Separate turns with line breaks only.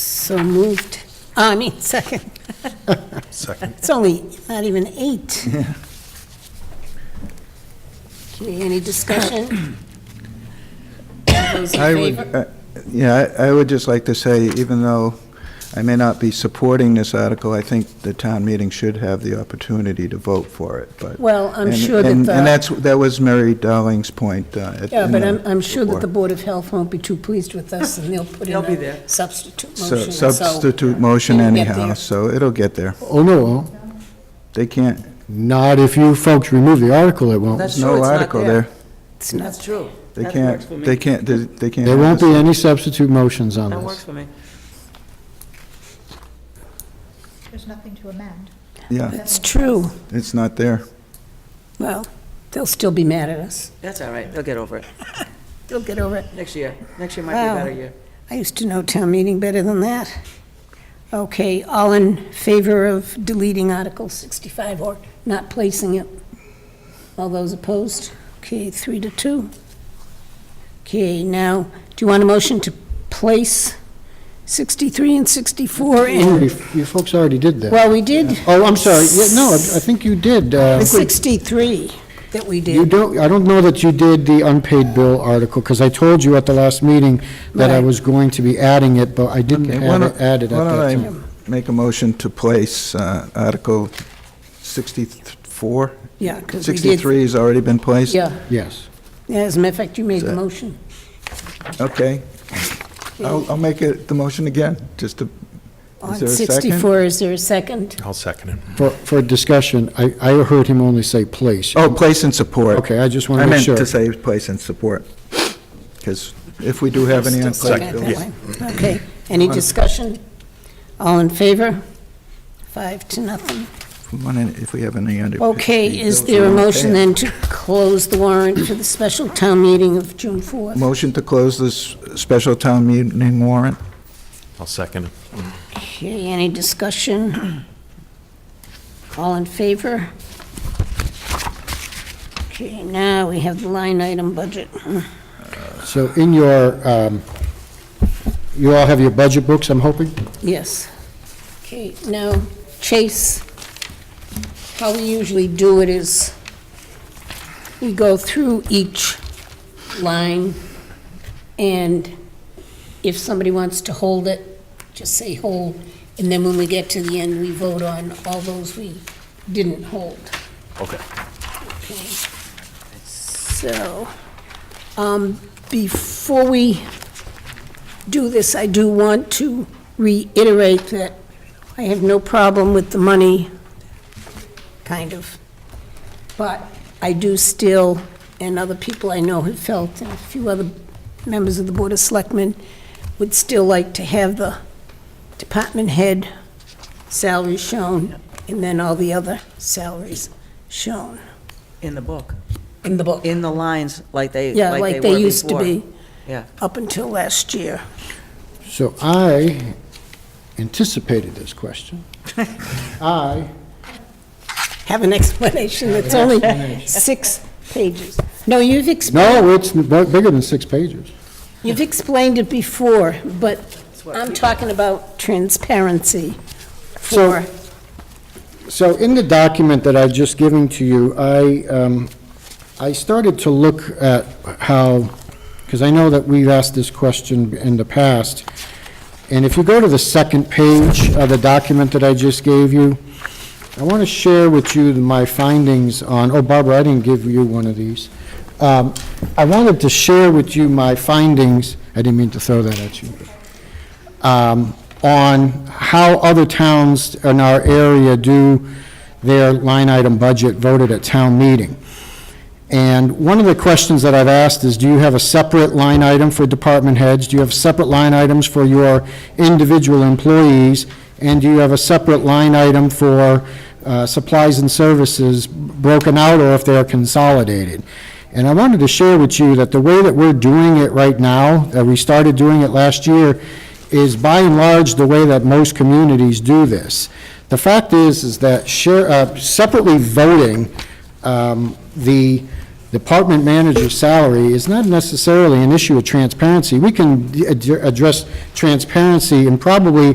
So moved. Ah, I mean, second.
Second.
It's only, not even eight. Okay, any discussion? All Those in
I would,
favor?
uh, yeah, I I would just like to say, even though I may not be supporting this article, I think the town meeting should have the opportunity to vote for it, but.
Well, I'm
and-
sure that
and-
the-
And that's, that was Mary Darling's point. uh, at-
Yeah,
in
but
the
I'm, I'm sure that the
report.
Board of Health won't be too pleased with us, and they'll put in
They'll be
a
there.
substitute
So-
motion, so...
Substitute motion
it'll get
anyhow,
there.
so it'll get there.
Oh, no,
They can't,
not if you folks remove the article, it won't.
That's true,
no
it's not
article there.
It's not-
That's true.
They
That works for
can't,
me.
they can't, they they can't.
There
have
won't
this.
be any substitute motions on
That works
this.
for me.
There's nothing to amend.
Yeah,
That's true.
it's not there.
Well, they'll still be mad at us.
That's all right, they'll get over it.
They'll get over it.
Next year, next year might
Wow.
be a better year.
I used to know town meeting better than that. Okay, all in favor of deleting Article 65 or not placing it? All those opposed? Okay, three to two. Okay, now, do you want a motion to place 63 and 64 in?
You you folks already did that.
Well, we did
Oh, I'm sorry, Yeah, no, I I think you did. uh,
63 that we
You
did.
don't, I don't know that you did the unpaid bill article, because I told you at the last meeting that I
Right.
was going to be adding it, but I didn't
Okay, why
have
don't-
it added at that
Why
time.
don't I make a motion to place uh, Article 64?
Yeah, because we did.
63 has already been placed?
Yeah,
Yes.
Yeah, as a matter of fact, you made the
Is that-
motion.
Okay. I'll, I'll make it, the motion again, just to,
On
is there a second?
64, is there a second?
I'll second it.
For, for discussion, I, I heard him only say place.
Oh, place and support.
Okay, I just want
I
to make
meant
sure.
to say place and support, because if we do have any
Still
unpaid
second
bills.
that way. Okay, any discussion? All in favor? Five to nothing.
if we want any- If we have any unpaid.
Okay, is
bills,
there a
we'll
motion
pay it.
then to close the warrant for the special town meeting of June 4th?
Motion to close this special town meeting warrant?
I'll second it.
Okay, any discussion? All in favor? Okay, now we have the line item budget.
So in your, um, you all have your budget books, I'm hoping?
Yes. Okay, now, Chase, how we usually do it is, we go through each line, and if somebody wants to hold it, just say hold, and then when we get to the end, we vote on all those we didn't hold.
Okay.
Okay. So, um, before we do this, I do want to reiterate that I have no problem with the money, kind of. But I do still, and other people I know have felt, and a few other members of the Board of Selectmen, would still like to have the department head salary shown, and then all the other salaries shown
In the book,
in the book.
in the lines like they, like they were
Yeah,
before.
like they used to be,
Yeah.
up until last year.
So I anticipated this question. I
Have an explanation, it's only six pages. No, you've explained,
No, it's n- bu- bigger than six pages.
you've explained it before, but I'm talking about transparency for,
So in the document that I've just given to you, I, um, I started to look at how, because I know that we've asked this question in the past, and if you go to the second page of the document that I just gave you, I want to share with you my findings on, oh, Barbara, I didn't give you one of these. Um, I wanted to share with you my findings, I didn't mean to throw that at you um, on how other towns in our area do their line item budget voted at town meeting. And one of the questions that I've asked is, do you have a separate line item for department heads? Do you have separate line items for your individual employees? And do you have a separate line item for uh, supplies and services broken out or if they are consolidated? And I wanted to share with you that the way that we're doing it right now, that we started doing it last year, is by and large the way that most communities do this. The fact is, is that share, uh, separately voting, um, the department manager's salary is not necessarily an issue of transparency. We can ad- address transparency in probably